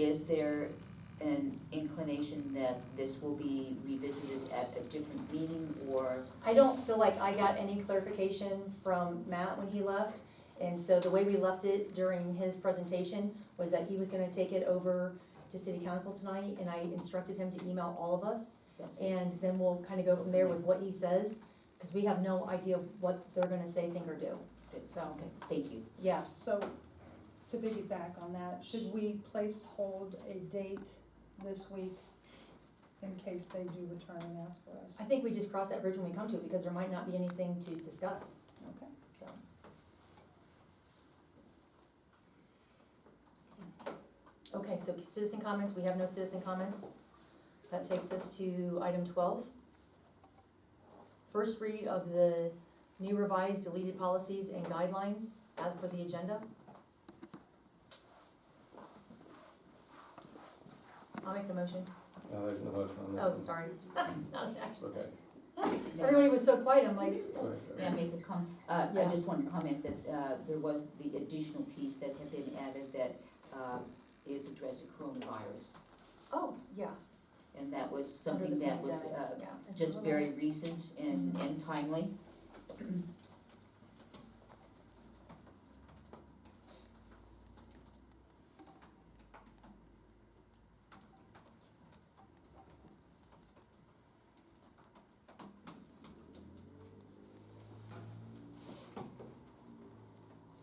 Is there an inclination that this will be revisited at a different meeting or? I don't feel like I got any clarification from Matt when he left. And so the way we left it during his presentation was that he was gonna take it over to city council tonight and I instructed him to email all of us. And then we'll kind of go from there with what he says, because we have no idea what they're gonna say, think or do. So, Okay, thank you. yeah, So, to piggyback on that, should we place hold a date this week in case they do return and ask for us? I think we just cross that bridge when we come to it because there might not be anything to discuss, Okay. so. Okay, so citizen comments, we have no citizen comments. That takes us to item twelve. First read of the new revised deleted policies and guidelines as per the agenda. I'll make the motion. No, there's no motion on this one. Oh, sorry, it's not an action. Okay. Yeah, Everybody was so quiet, I'm like, Alright, May I make a com, uh, I Yeah. just want to comment that, uh, there was the additional piece that had been added that, uh, is addressing coronavirus. oh, yeah. And that was under something the that was, pandemic, uh, yeah. It's a just little- very recent and, Mm-hmm. and timely.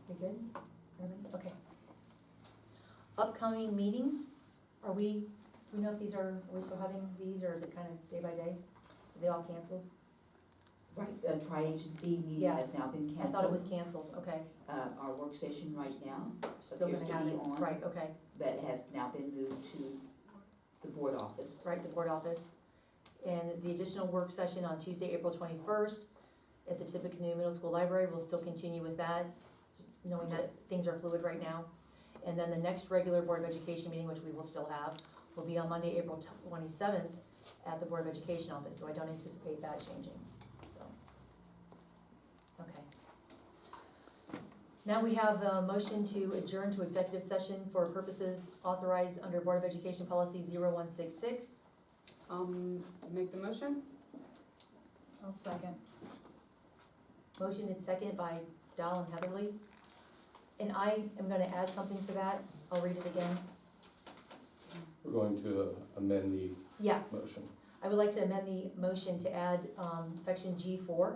We good? Everybody? Okay. Upcoming meetings, are we, do we know if these are, are we still having these, or is it kind of day by day? Are they all canceled? Right, the tri-agency meeting Yeah. has now been I thought it canceled. was canceled, okay. Uh, our work session right now, Still Appears gonna to have be it, on. right, okay, that has now been moved to the board office. right, the board office. And the additional work session on Tuesday, April twenty-first, at the Tippecanoe Middle School Library, we'll still continue with that, just knowing that things are fluid right now. And then the next regular Board of Education meeting, which we will still have, will be on Monday, April twenty-seventh at the Board of Education office, so I don't anticipate that changing, so. Okay. Now we have a motion to adjourn to executive session for purposes authorized under Board of Education Policy 0166. Um, make the motion? I'll second. Motion and second by Dahl and Heatherly. And I am gonna add something to that, I'll read it again. We're going to uh, amend the Yeah, motion. I would like to amend the motion to add, um, section G four.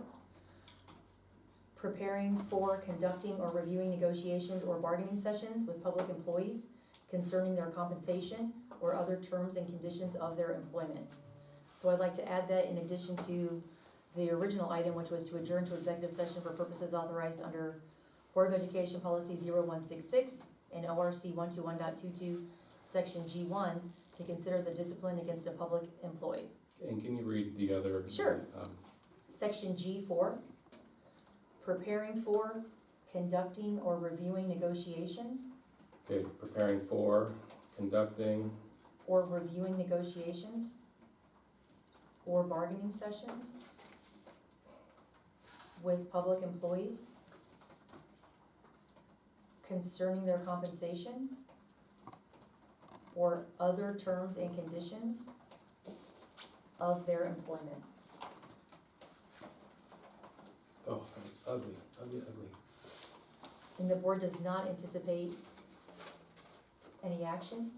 Preparing for conducting or reviewing negotiations or bargaining sessions with public employees concerning their compensation or other terms and conditions of their employment. So I'd like to add that in addition to the original item, which was to adjourn to executive session for purposes authorized under Board of Education Policy 0166 and ORC one two one dot two two, section G one, to consider the discipline against a public employee. And can you read the other? Sure. um, Section G four, preparing for, conducting, or reviewing negotiations, Okay, preparing for, conducting, or reviewing negotiations, or bargaining sessions with public employees concerning their compensation or other terms and conditions of their employment. oh, ugly, ugly, ugly. And the board does not anticipate any action?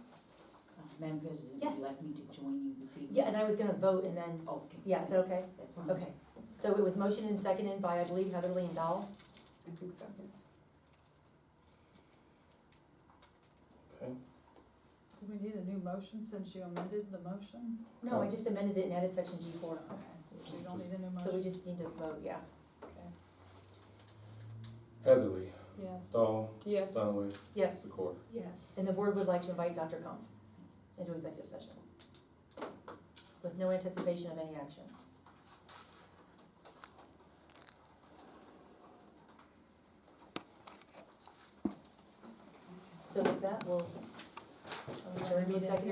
Uh, Madam President, would Yes. you like me to join you this evening? Yeah, and I was gonna vote and then, Okay. yeah, is that okay? That's fine. Okay. So it was motioned and seconded by, I believe, Heatherly and Dahl. I think so, yes. Okay, Do we need a new motion since you amended the motion? No, I just amended it and added section G four. Okay, so you don't need a new So we motion? just need to vote, yeah. Okay. Heatherly, Yes. Dahl, Yes. Dunaway, Yes, Secor. Yes. and the board would like to invite Dr. Comp into executive session with no anticipation of any action. So with that, we'll adjourn to executive